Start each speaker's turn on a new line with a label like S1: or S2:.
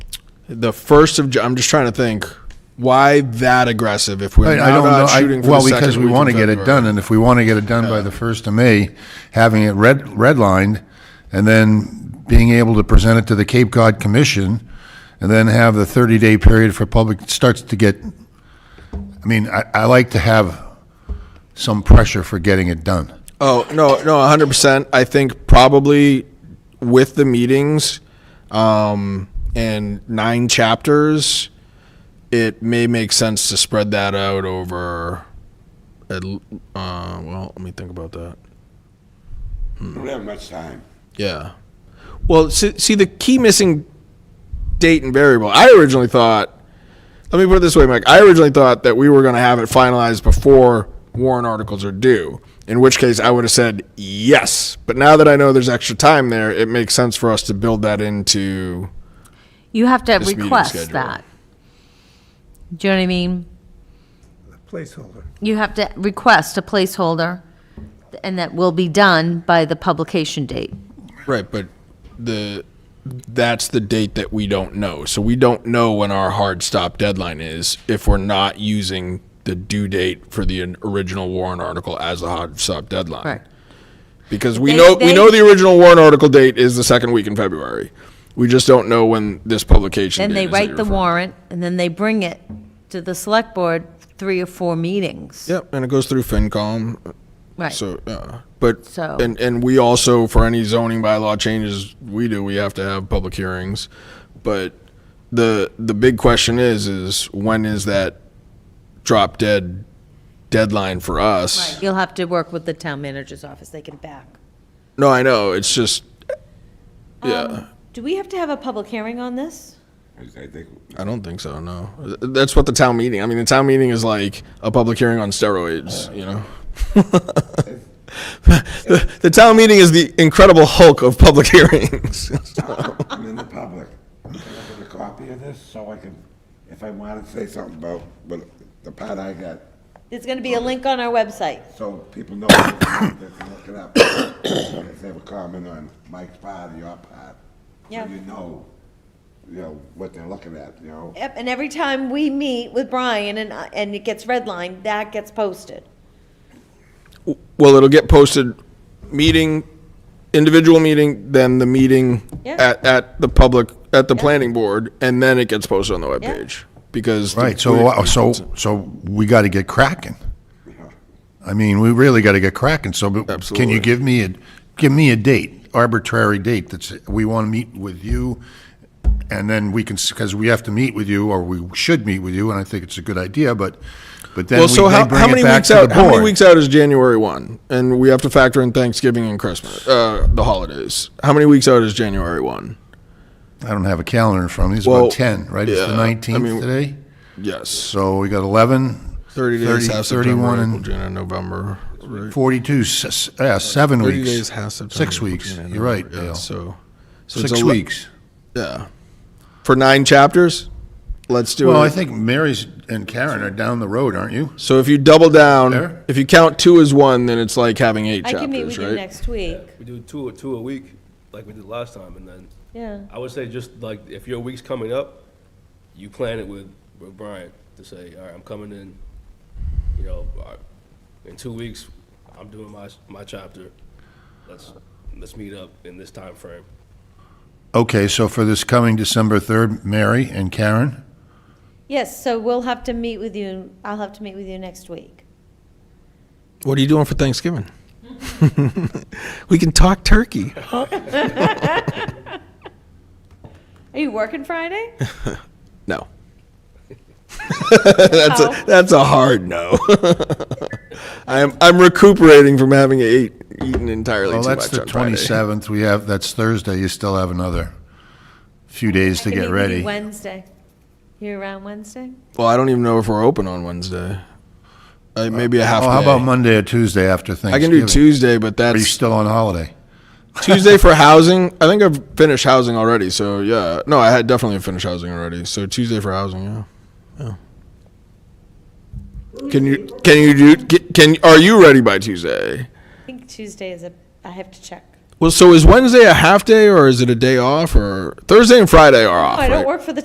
S1: the first of. Ju- I'm just trying to think why that aggressive if we're
S2: I,
S1: not
S2: I don't know.
S1: out
S2: I-
S1: shooting for
S2: well,
S1: the second
S2: because we
S1: week in
S2: want to get it
S1: February.
S2: done, and if we want to get it done by the first of May, having it red redlined, and then being able to present it to the Cape Cod Commission, and then have the thirty day period for public it starts to get. I mean, I, I like to have some pressure for getting it done.
S1: Oh no, no, hundred percent. I think probably with the meetings um, and nine chapters, it may make sense to spread that out over. at l- Uh, well, let me think about that.
S3: We don't have much time.
S1: Yeah. Well, see, see the key missing date and variable. I originally thought. Let me put it this way, Mike. I originally thought that we were going to have it finalized before warrant articles are due. In which case, I would have said yes. But now that I know there's extra time there, it makes sense for us to build that into.
S4: You have to
S1: This meeting
S4: request
S1: schedule.
S4: that. Do you know what I mean?
S5: placeholder.
S4: You have to request a placeholder, and that will be done by the publication date.
S1: Right, but the that's the date that we don't know. So we don't know when our hard stop deadline is if we're not using the due date for the original warrant article as the hard stop deadline.
S4: Correct.
S1: because we
S4: They-
S1: know we
S4: they-
S1: know the original warrant article date is the second week in February. We just don't know when this publication.
S4: Then
S1: date
S4: they
S1: is that
S4: write
S1: you're
S4: the
S1: referring-
S4: warrant, and then they bring it to the select board three or four meetings.
S1: Yep, and it goes through FinCom.
S4: Right.
S1: So, uh, but
S4: So-
S1: and and we also for any zoning bylaw changes we do, we have to have public hearings. But the the big question is is when is that drop dead deadline for us?
S4: You'll have to work with the town manager's office, they can back.
S1: No, I know it's just yeah.
S4: Do we have to have a public hearing on this?
S3: I I think,
S1: I don't think so. No, that's what the town meeting. I mean, the town meeting is like a public hearing on steroids. You know, the, the town meeting is the Incredible Hulk of public hearings.
S3: I'm in the public. Can I get a copy of this so I can, if I want to say something about what- the part I got,
S4: There's gonna be a link on our website.
S3: so people know they can look it up. If they have a comment on Mike's part or your part.
S4: Yeah.
S3: So you know, you know, what they're looking at, you know?
S4: Yep, and every time we meet with Brian and, I- and it gets redlined, that gets posted.
S1: well, it'll get posted, meeting, individual meeting, then the meeting
S4: Yeah.
S1: at, at the public at the planning board, and then it gets posted on the webpage because the-
S2: Right. So uh, so so we got to get cracking. I mean, we really got to get cracking. So, but can
S1: Absolutely.
S2: you give me a give me a date, arbitrary date that's we want to meet with you, and then we can because we have to meet with you or we should meet with you, and I think it's a good idea. But but then
S1: Well,
S2: we,
S1: so
S2: they
S1: how,
S2: bring
S1: how
S2: it
S1: many
S2: back
S1: weeks
S2: to the
S1: out? How many
S2: board.
S1: weeks out is January one, and we have to factor in Thanksgiving and Christmas, uh, the holidays. How many weeks out is January one?
S2: I don't have a calendar in front of me. It's
S1: Well,
S2: about ten, right? it's
S1: yeah, I
S2: the nineteenth
S1: mean-
S2: today.
S1: Yes,
S2: So we got eleven.
S1: thirty days
S2: 30,
S1: half September,
S2: 31
S1: April,
S2: and
S1: June, and November. Right.
S2: 42, s- s- yeah, seven
S1: 30
S2: weeks.
S1: days half September.
S2: Six
S1: April,
S2: weeks.
S1: June, and
S2: You're right,
S1: November. Yeah,
S2: Dale.
S1: So, so it's
S2: Six
S1: ele-
S2: weeks.
S1: Yeah, for nine chapters. Let's do
S2: Well,
S1: it.
S2: I think Mary's and Karen are down the road, aren't you?
S1: so if you double down,
S2: Fair.
S1: if you count two as one, then it's like having eight
S4: I
S1: chapters,
S4: can meet with
S1: right?
S4: you next week,
S5: We do two, two a week, like we did last time, and then,
S4: yeah.
S5: I would say just like, if your week's coming up, you plan it with, with Brian to say, all right, I'm coming in, you know, uh, in two weeks, I'm doing my, my chapter. Let's, let's meet up in this time frame.
S2: Okay, so for this coming December 3rd, Mary and Karen,
S4: Yes, so we'll have to meet with you, I'll have to meet with you next week.
S1: What are you doing for Thanksgiving? we can talk turkey.
S4: Are you working Friday?
S1: No. that's
S4: Oh.
S1: a that's a hard no. I'm I'm recuperating from having ate eaten entirely
S2: well,
S1: too
S2: that's
S1: much
S2: the
S1: on Friday.
S2: 27th, we have, that's Thursday, you still have another few days
S4: I
S2: to
S4: can meet
S2: get
S4: with you
S2: ready.
S4: Wednesday. You around Wednesday?
S1: Well, I don't even know if we're open on Wednesday. Uh, maybe a half
S2: Oh, how
S1: day.
S2: about Monday or Tuesday after
S1: I can
S2: Thanksgiving?
S1: do Tuesday, but
S2: Are you
S1: that's
S2: still on holiday?
S1: Tuesday for housing. I think I've finished housing already. So yeah, no, I had definitely finished housing already. So Tuesday for housing, yeah, yeah. Can you can you do can are you ready by Tuesday?
S4: I think Tuesday is a, I have to check.
S1: Well, so is Wednesday a half day or is it a day off or Thursday and Friday are off?
S4: Oh, I don't
S1: right?
S4: work for the